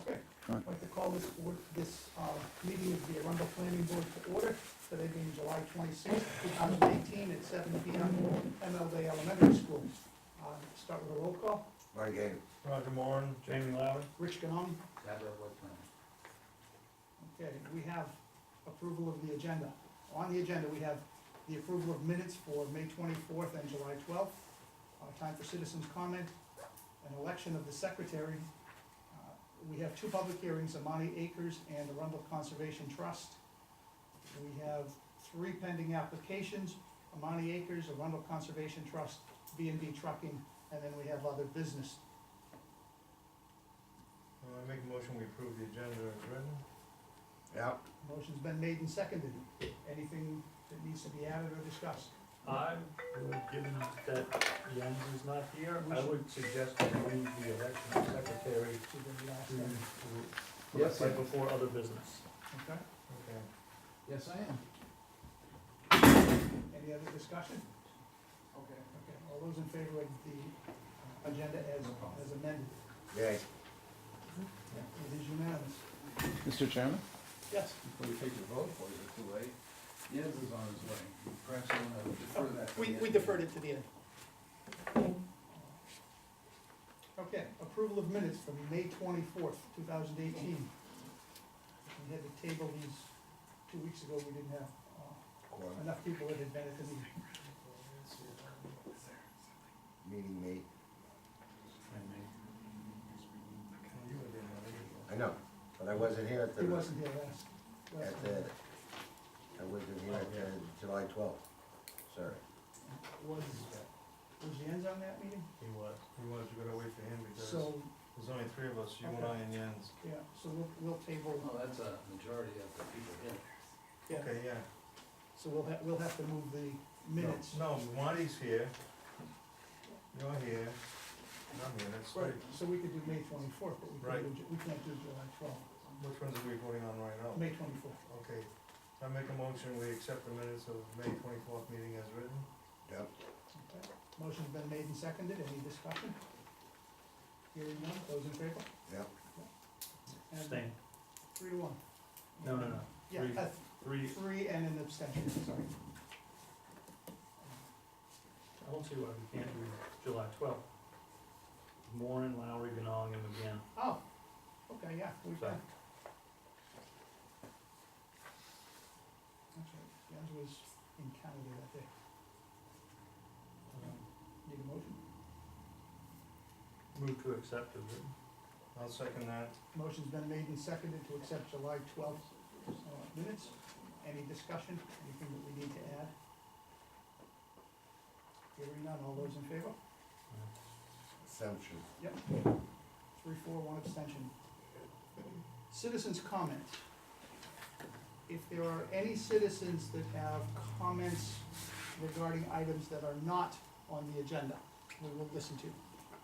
Okay, I'd like to call this board, this, uh, meeting of the Arundel Planning Board to order, today being July twenty-sixth, two thousand eighteen, at seven P M, MLD Elementary School. Uh, start with a roll call, Marty Gator. Roger Moore, Jamie Loud, Rich Ganong, Deborah Whitman. okay, we have approval of the agenda. On the agenda, we have the approval of minutes for May twenty-fourth and July twelfth, uh, time for citizens' comment, an election of the secretary. Uh, We have two public hearings, Amani Acres and Arundel Conservation Trust. We have three pending applications, Amani Acres, Arundel Conservation Trust, B and B Trucking, and then we have other business. Uh, I make a motion, we approve the agenda as written. Yeah, Motion's been made and seconded. Anything that needs to be added or discussed? I would, given that Jens is not here, I would suggest that we leave the election of secretary Should we ask to, them? to, Yes, right sir. before other business. Okay, Okay. Yes, I am. any other discussion? Okay. Okay, all those in favor of the uh, agenda as, as amended? yay. It is unanimous. Mr. Chairman? Yes. Before we take the vote, or is it too late? Yes is on his way. Perhaps I want to defer that. to We, the we end. deferred it to the end. Okay, approval of minutes from May twenty-fourth, two thousand eighteen. We had to table these two weeks ago, we didn't have uh, Quorum. enough people that had been at the meeting. Meeting made, Well, you were there, not me. I know, but I wasn't here at He the, wasn't here last, last. at the, I wasn't here at the July twelfth, sorry. Was, was Jens on that meeting? He was. You was, you gotta wait for him because So, there's only three of us, you and I Okay. and Jens. yeah, so we'll, we'll table, Well, that's a majority of the people here. yeah, Okay, yeah. so we'll have, we'll have to move the minutes. No, Marty's here. You're here. And I'm here, that's Right, three. so we could do May twenty-fourth, but we can't Right. do, Ju- we can't do July twelfth, Which ones are we voting on right now? May twenty-fourth. Okay. I make a motion, we accept the minutes of May twenty-fourth meeting as written. Yep, Motion's been made and seconded, any discussion? Hearing none, those in favor? yep, And Abstain. Three to one. No, no, no. Yeah, Three. uh, Three, three and an abstention, sorry. I don't see why we can't do July twelfth. Moore and Lowry, Ganong and McGann. Oh, okay, yeah, we can. Sorry. That's right, Jens was in Canada that day. Um, Need a motion? Move to accept as written. I'll second that. Motion's been made and seconded to accept July twelfth uh, minutes. Any discussion, anything that we need to add? Hearing none, all those in favor? assumption. Three, four, one abstention. Citizens' comments. If there are any citizens that have comments regarding items that are not on the agenda, we will listen to.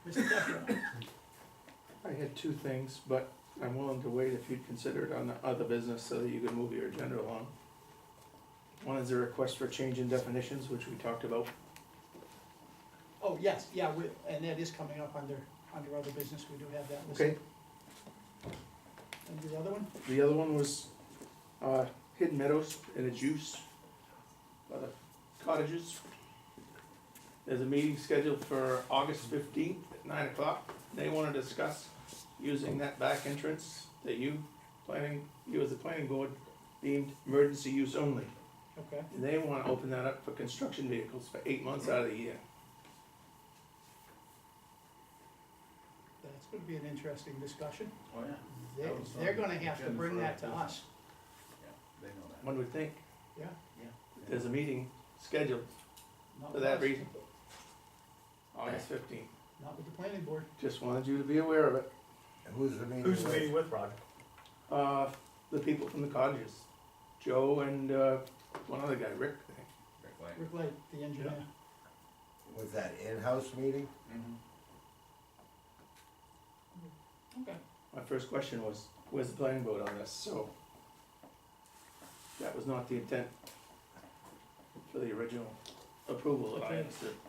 Mr. Decker, I had two things, but I'm willing to wait if you'd consider it on the other business so that you could move your agenda along. One is a request for change in definitions, which we talked about. oh, yes, yeah, we, and that is coming up under, under other business, we do have that listed. Okay, And the other one, the other one was, uh, Hidden Meadows and its use by the uh, cottages. There's a meeting scheduled for August fifteenth at nine o'clock. They wanna discuss using that back entrance that you planning, you as the planning board deemed emergency use only. okay, They wanna open that up for construction vehicles for eight months out of the year. that's gonna be an interesting discussion. Oh, yeah. They're, That was on they're the gonna have to agenda bring for that to other us. They know One would think, Yeah. there's a meeting scheduled not For with that us, reason. August fifteenth. Not with the planning board. Just wanted you to be aware of it. And Who's the meeting Who's the with? meeting with, Roger? Uh, the people from the cottages, Joe and, uh, one other guy, Rick, I think. that. Rick Light, the engineer. Was that in-house meeting? Mhm. Okay. My first question was, where's the planning board on this, so. That was not the intent for the original approval that I understood.